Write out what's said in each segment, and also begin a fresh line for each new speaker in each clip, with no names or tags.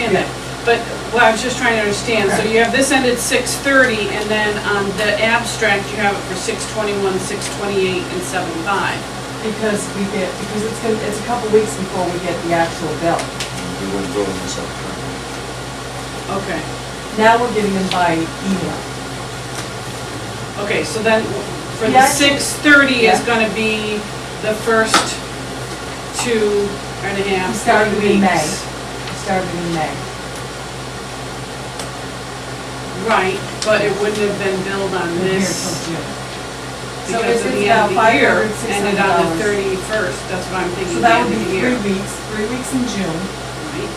that. But, well, I was just trying to understand, so you have this end at six thirty, and then on the abstract, you have it for six twenty-one, six twenty-eight, and seven five.
Because we get, because it's gonna, it's a couple weeks before we get the actual bill.
We wouldn't vote on this up.
Okay,
Now we're getting them by email.
okay, so then, for the
Yeah, I see.
six thirty is
Yeah.
gonna be the first two and a half,
Starting
three
in May.
weeks.
It started in May.
Right, but it wouldn't have been billed on
We're here till
this
June. So
because
it's-
of
it's
the end of
about
the year,
$500,
ended on the
$600.
thirty-first, that's what I'm
So
thinking, the
that would
end of
be
the year.
three weeks, three weeks in June,
Right.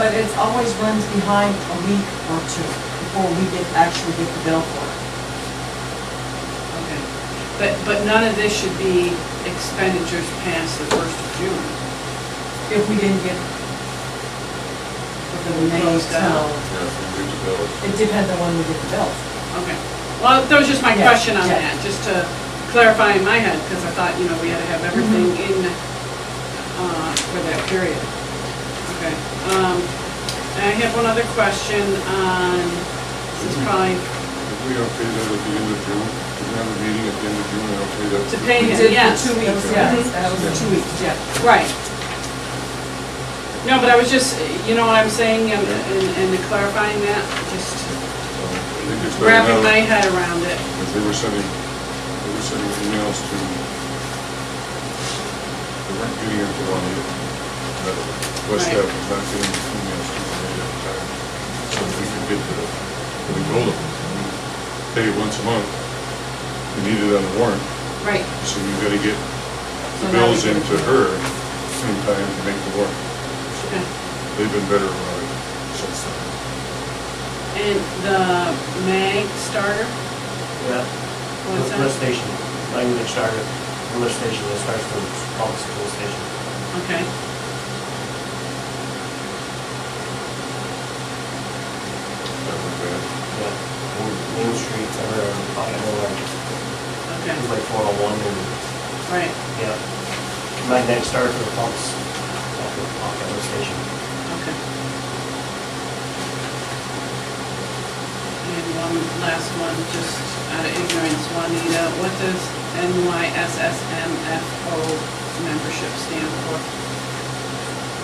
but it's always runs behind a week or two before we get, actually get the bill for it.
Okay, But, but none of this should be expenditures past the first of June.
If we didn't get the
We
remaining
closed out.
till,
Yeah, if we do the bill.
it depends on when we get the bill.
Okay. Well, that was just my
Yeah,
question on
yeah.
that, just to clarify in my head, because I thought, you know, we had to have
Mm-hmm.
everything in, uh, for that period. Okay. Um, and I have one other question on, this is probably
If we don't pay that at the end of June, if we have a meeting at the end of June, I don't pay that.
To pay
We
Yeah,
did the
yes.
two weeks, yeah, that was the two weeks, yeah.
Right. No, but I was just, you know what I'm saying, and, and and clarifying that, just
I think it's better
wrapping
now.
my head around it.
If they were sending, they were sending emails to, they weren't getting it to one either. But West
Right.
Ave was not getting the emails to one either at the time. So if we could get the, we told them, we pay it once a month. We need it on the warrant,
Right.
so you gotta get the
So now we
bills
get it.
into her in time to make the warrant.
Okay.
They've been better about it since then.
And the mag starter,
Yeah.
What's that?
Lift station, language starter, the lift station that starts from August lift station.
okay.
That was bad.
Yeah. Main, Main Street, somewhere around the bottom of like,
Okay,
it was like four oh one and,
right,
yeah. Magnetic starter for the pumps, off the, off the lift station.
okay. And one last one, just out of ignorance, Juanita, what does NYSSMFO membership stand for?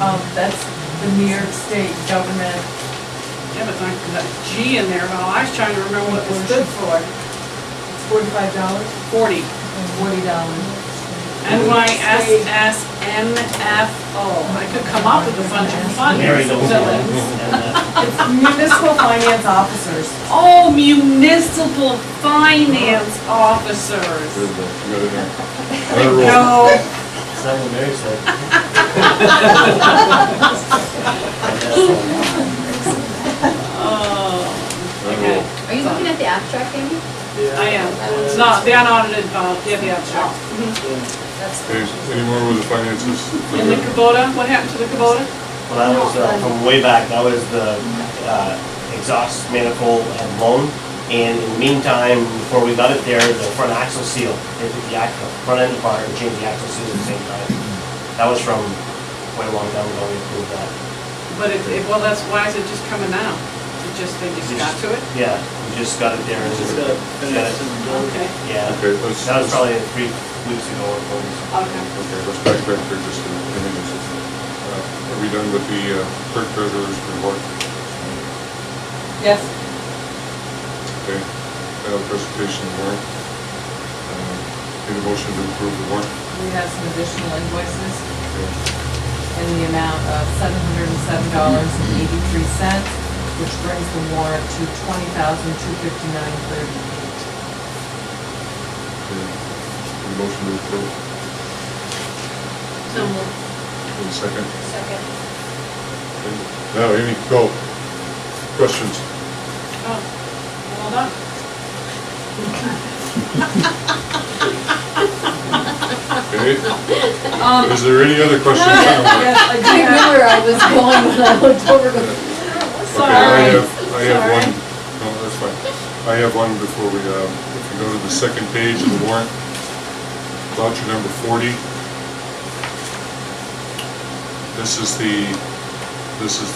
Um, that's the New York State government,
Yeah, but I got a G in there, well, I was trying to remember what it stood for.
it's forty-five dollars
Forty,
and forty dollars.
NYSSMFO, I could come up with a bunch of fun
Mary goes along.
villains.
And, uh,
It's municipal finance officers.
Oh, municipal finance
Good,
officers.
you got it now. Another roll.
No,
it's not what Mary said. uh,
oh, okay.
Are you looking at the abstract, Amy?
I am, it's not, the unaudited, uh, yeah, the abstract.
Okay, any more with the finances?
And the Kubota, what happened to the Kubota?
Well, that was uh, from way back, that was the uh, exhaust manifold and loan. And in the meantime, before we got it there, the front axle seal, they took the axle, front end apart and changed the axle seal at the same time. That was from quite a long time ago, we approved that.
But it, it- well, that's, why is it just coming now? It just, they just got to it?
Yeah, we just got it there. and
Just gotta
got
finish
it.
and go.
Okay,
Yeah,
Okay, let's-
that was probably three weeks ago or four weeks.
okay.
Okay, let's backtrack there just a minute. Uh, Are we done with the uh, clerk treasurer's report?
Yes,
Okay, now the presentation of warrant. Um, Need a motion to approve the warrant?
we have some additional invoices.
Okay.
in the amount of seven hundred and seven dollars and eighty-three cents, which brings the warrant to twenty thousand two fifty-nine thirty-eight.
Okay. Need a motion to approve?
So moved.
Need a second?
Second.
Okay. Now, Amy, go. Questions?
Oh, well done.
Okay? Is there any other questions?
Yes, I do
I knew
have,
where I was going when I looked over.
Okay, I
Sorry.
have, I have one, no, that's fine. I have one before we, um, if you go to the second page of the warrant, voucher number forty. This is the, this is